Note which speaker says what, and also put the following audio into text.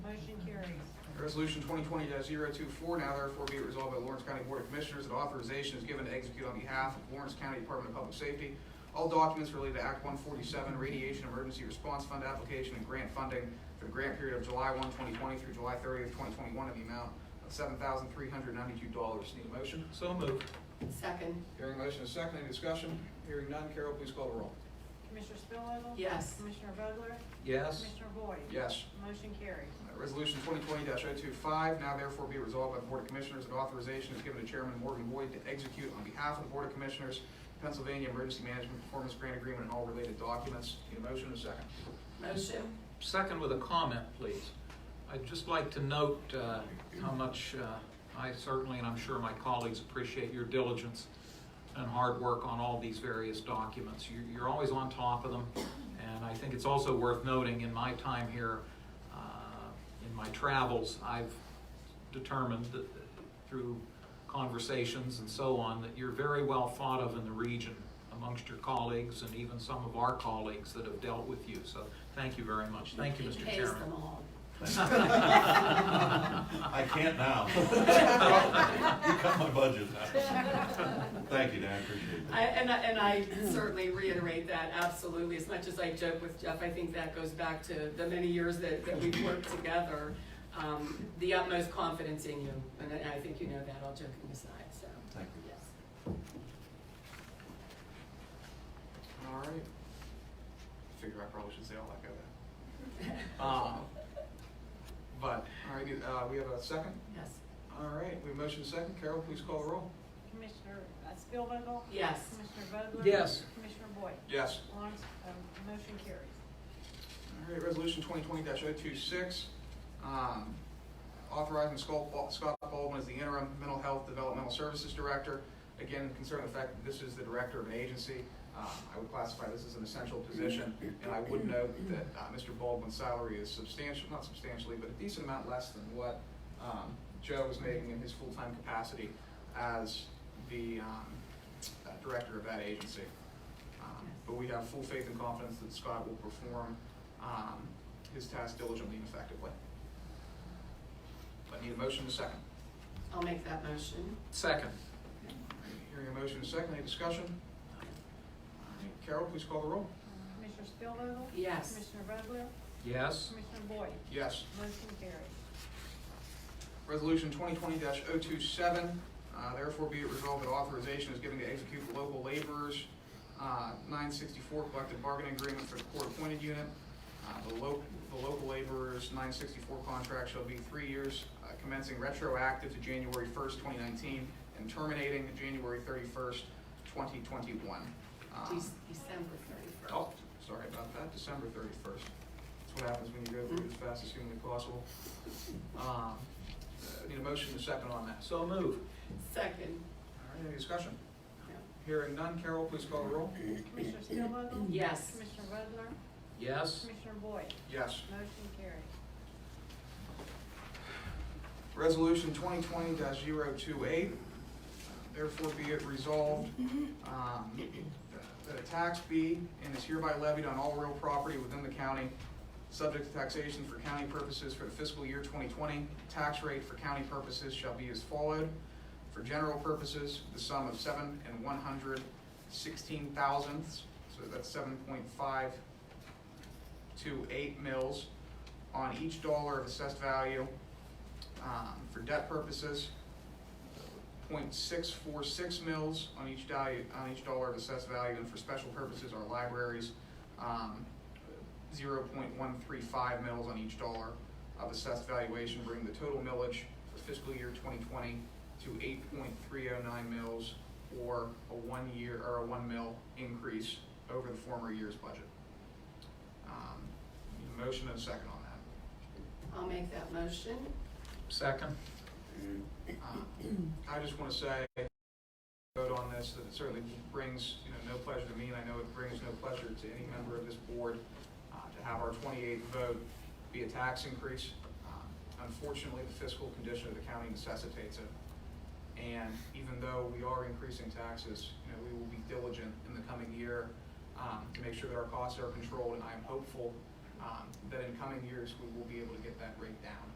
Speaker 1: Resolution twenty twenty 24 now therefore be resolved by Lawrence County Board of Commissioners that authorization is given to execute on behalf of Lawrence County Department of Public Safety all documents related to Act one forty-seven Radiation Emergency Response Fund application and grant funding for the grant period of July 1, 2020, through July thirtieth, twenty twenty-one in the amount of seven thousand three hundred ninety-two dollars. Need a motion?
Speaker 2: So moved.
Speaker 3: Second,
Speaker 1: Hearing a motion is second, any discussion? Hearing none, Carol, please call the roll.
Speaker 4: Commissioner Spillwinkle?
Speaker 3: Yes.
Speaker 4: Commissioner Vogler?
Speaker 2: Yes.
Speaker 4: Commissioner Boyd?
Speaker 1: Yes.
Speaker 4: Motion carries.
Speaker 1: Uh, Resolution twenty twenty 25 now therefore be resolved by the Board of Commissioners that authorization is given to Chairman Morgan Boyd to execute on behalf of the Board of Commissioners Pennsylvania Emergency Management Performance Grant Agreement and all related documents. Need a motion and a second.
Speaker 3: motion,
Speaker 2: Second with a comment, please. I'd just like to note uh, how much uh, I certainly, and I'm sure my colleagues appreciate your diligence and hard work on all these various documents. You- You're always on top of them, and I think it's also worth noting, in my time here, uh, in my travels, I've determined that through conversations and so on, that you're very well thought of in the region amongst your colleagues and even some of our colleagues that have dealt with you. So thank you very much. Thank you,
Speaker 3: he
Speaker 2: Mr.
Speaker 3: pays them
Speaker 2: Chairman.
Speaker 3: all.
Speaker 5: I can't now. You cut my budget. Thank you, Dan, I appreciate
Speaker 3: I,
Speaker 5: that.
Speaker 3: and I, and I certainly reiterate that absolutely, as much as I joke with Jeff, I think that goes back to the many years that, that we've worked together. Um, the utmost confidence in you, and I, I think you know that, all joking aside, so,
Speaker 5: Thank you.
Speaker 3: yes.
Speaker 1: All right. Figure I probably should say all that, go that.
Speaker 2: Uh,
Speaker 1: Um, But, all right, uh, we have a second?
Speaker 3: Yes,
Speaker 1: All right, we have a motion and a second. Carol, please call the roll.
Speaker 4: Commissioner uh, Spillwinkle?
Speaker 3: yes,
Speaker 4: Commissioner Vogler?
Speaker 2: Yes.
Speaker 4: Commissioner Boyd?
Speaker 1: Yes.
Speaker 4: Lawrence, um, motion carries.
Speaker 1: All right, resolution twenty twenty oh 26 um, authorizing Scott Bal- Scott Baldwin as the interim mental health developmental services director. Again, concerning the fact that this is the director of an agency, uh, I would classify this as an essential position. And I would note that, uh, Mr. Baldwin's salary is substantial, not substantially, but a decent amount less than what, um, Joe was making in his full-time capacity as the, um, uh, director of that agency. Um, But we have full faith and confidence that Scott will perform um, his task diligently and effectively. I need a motion to second.
Speaker 3: I'll make that motion,
Speaker 2: Second.
Speaker 1: Hearing a motion to second, any discussion? Carol, please call the roll.
Speaker 4: Commissioner Spillwinkle?
Speaker 3: yes.
Speaker 4: Commissioner Vogler?
Speaker 2: Yes.
Speaker 4: Commissioner Boyd?
Speaker 1: Yes.
Speaker 4: Motion carries.
Speaker 1: Resolution twenty twenty 27 uh, therefore be it resolved that authorization is given to execute the local laborers, uh, nine sixty-four collective bargaining agreement for the court-appointed unit. Uh, the local, the local laborers, nine sixty-four contract shall be three years, uh, commencing retroactive to January first, twenty nineteen, and terminating January thirty-first, twenty twenty-one.
Speaker 2: Uh,
Speaker 1: Um,
Speaker 3: Dec- December thirty-first.
Speaker 1: Oh, sorry about that, December thirty-first. That's what happens when you go through as fast as humanly possible. Um, uh, Need a motion to second on that.
Speaker 2: So moved.
Speaker 3: Second,
Speaker 1: All right, any discussion?
Speaker 3: No.
Speaker 1: Hearing none, Carol, please call the roll.
Speaker 4: Commissioner Spillwinkle?
Speaker 3: yes.
Speaker 4: Commissioner Vogler?
Speaker 2: Yes.
Speaker 4: Commissioner Boyd?
Speaker 1: Yes.
Speaker 4: Motion carries.
Speaker 1: Resolution twenty twenty 28 therefore be it resolved, um, that a tax be and is hereby levied on all real property within the county, subject to taxation for county purposes for the fiscal year twenty twenty. Tax rate for county purposes shall be as followed. For general purposes, the sum of seven and one hundred sixteen thousandths, so that's seven point five two eight mils on each dollar of assessed value um, for debt purposes, 0.646 mils on each value, on each dollar of assessed value, and for special purposes, our libraries, um, zero point one three five mils on each dollar of assessed valuation, bringing the total millage for fiscal year twenty twenty to eight point three oh nine mils, or a one-year, or a one mil increase over the former year's budget. Um, need a Motion and a second on that.
Speaker 3: I'll make that motion,
Speaker 2: Second.
Speaker 1: Um, I just want to say, vote on this, that it certainly brings, you know, no pleasure to me, and I know it brings no pleasure to any member of this board uh, to have our 28th vote be a tax increase. Um, Unfortunately, the fiscal condition of the county necessitates it. And even though we are increasing taxes, you know, we will be diligent in the coming year um, to make sure that our costs are controlled. And I am hopeful um, that in coming years, we will be able to get that rate down.